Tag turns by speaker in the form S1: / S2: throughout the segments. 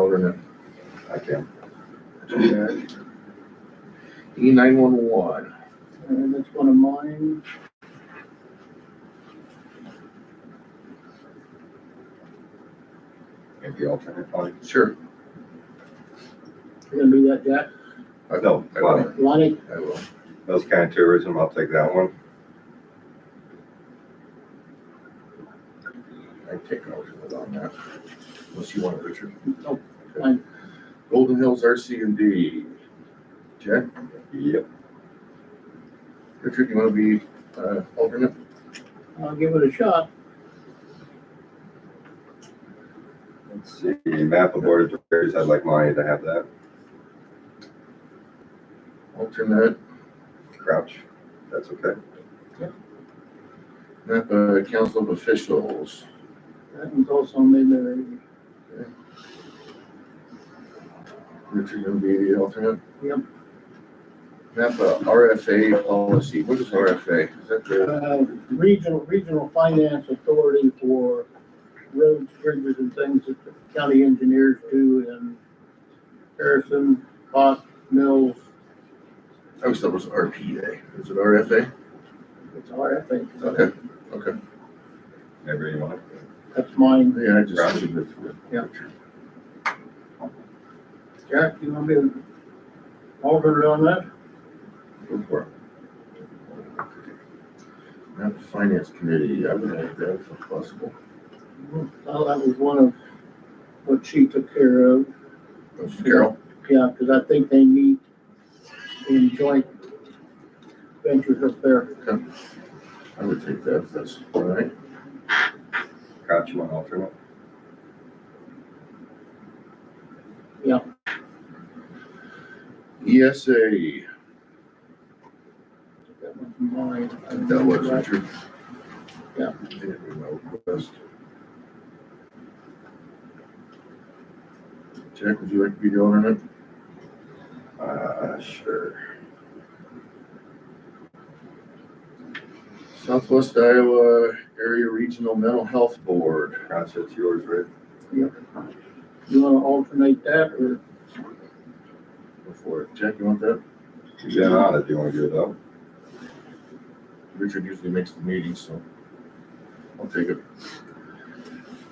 S1: Governor.
S2: I can.
S1: E nine one one.
S3: And that's one of mine.
S2: And the alternate, oh, I,
S1: Sure,
S3: You're gonna do that, Jack?
S2: no,
S1: I
S2: Lonnie,
S1: will,
S3: Lonnie,
S1: I will.
S2: Mills County Tourism, I'll take that one.
S1: I take no hold on that. Unless you want it, Richard.
S3: Nope,
S1: Okay.
S3: fine.
S1: Golden Hills RC and D. Jack,
S2: Yep,
S1: Richard, you wanna be, uh, alternate?
S3: I'll give it a shot.
S2: let's see, map of Board of Directors, I'd like Lonnie to have that.
S1: Alternate,
S2: Crouch, that's okay.
S1: not, uh, Council of Officials.
S3: That one's also made there.
S1: Richard gonna be the alternate?
S3: Yep.
S1: NAPA RFA policy, what is RFA? Is that the,
S3: Uh, Regional, Regional Finance Authority for roads, bridges and things that the county engineers do in Harrison, Fox, Mills,
S1: I always thought it was RPA, is it RFA?
S3: it's RFA.
S1: Okay, okay,
S2: Maybe you want.
S3: That's mine.
S1: yeah, I just.
S2: Roger.
S3: Yeah. Jack, you wanna be an alternate on that?
S1: Go for it. Not Finance Committee, I would like that if possible.
S3: Well, that was one of what she took care of.
S1: Carol?
S3: Yeah, because I think they meet in joint ventures up there.
S1: I would take that if that's all right.
S2: Crouch, you want alternate?
S1: E ESA,
S3: That was mine.
S1: I think that was Richard.
S3: Yeah.
S1: Didn't remember best. Jack, would you like to be the alternate?
S2: Uh, sure.
S1: Southwest Iowa Area Regional Mental Health Board.
S2: Crouch, it's yours, Rick.
S3: You want to alternate that or
S1: Go for it. Jack, you want that?
S2: You've been on it, do you want to do it though?
S1: Richard usually makes the meetings, so I'll take it.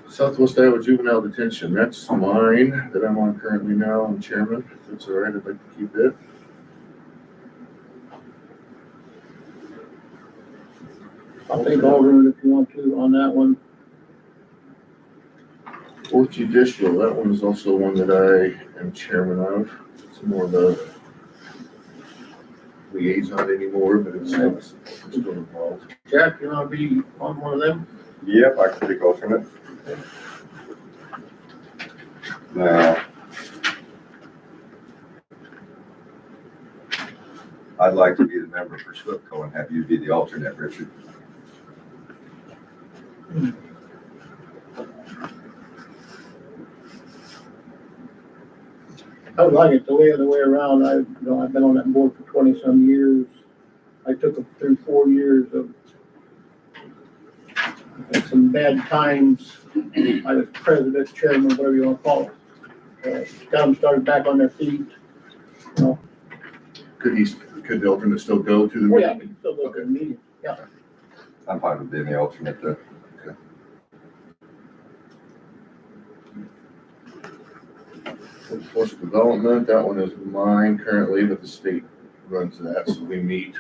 S1: Southwest Iowa Juvenile Detention, that's mine that I'm on currently now, I'm chairman. If that's all right, I'd like to keep it.
S3: I'll take alternate if you want to on that one.
S1: Fourth Judicial, that one is also one that I am chairman of. It's more of a liaison anymore, but it's it's still involved.
S3: Jack, you want to be on one of them?
S2: Yep, I can take alternate. Now. I'd like to be the member for SWPCO and have you be the alternate, Richard.
S3: I would like it the way, the way around. I, you know, I've been on that board for twenty-some years. I took them through four years of had some bad times. I was president, chairman, whatever you want to call it. Uh, Got them started back on their feet. You know,
S1: Could he, could the alternate still go to the
S3: Oh, yeah, I
S1: meeting?
S3: can still go to the meeting. Yeah,
S2: I'm fine with being the alternate though.
S1: Workforce Development, that one is mine currently, but the state runs that, so we meet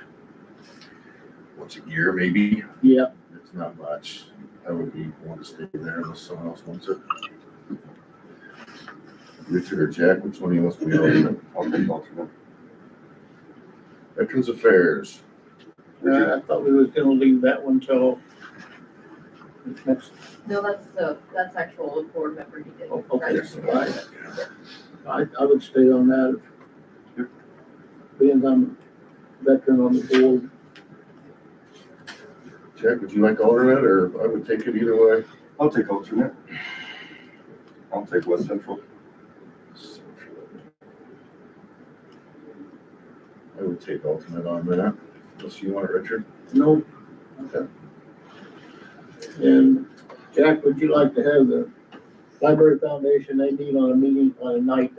S1: once a year, maybe.
S3: yeah.
S1: It's not much. I would be, want to stay there unless someone else wants it. Richard or Jack, which one of you wants to be on?
S2: I'll take alternate.
S1: Veterans Affairs,
S2: Richard,
S3: Uh, I thought we was gonna leave that one till next,
S4: No, that's the, that's actual board member he did.
S3: oh, okay.
S4: Right.
S3: All right. I, I would stay on that.
S2: Yep.
S3: Being I'm a veteran on the board,
S1: Jack, would you like alternate, or I would take it either way?
S2: I'll take alternate. I'll take West Central.
S1: I would take alternate on that, unless you want it, Richard.
S3: no.
S1: Okay.
S3: And Jack, would you like to have the Library Foundation, they meet on a meeting on a night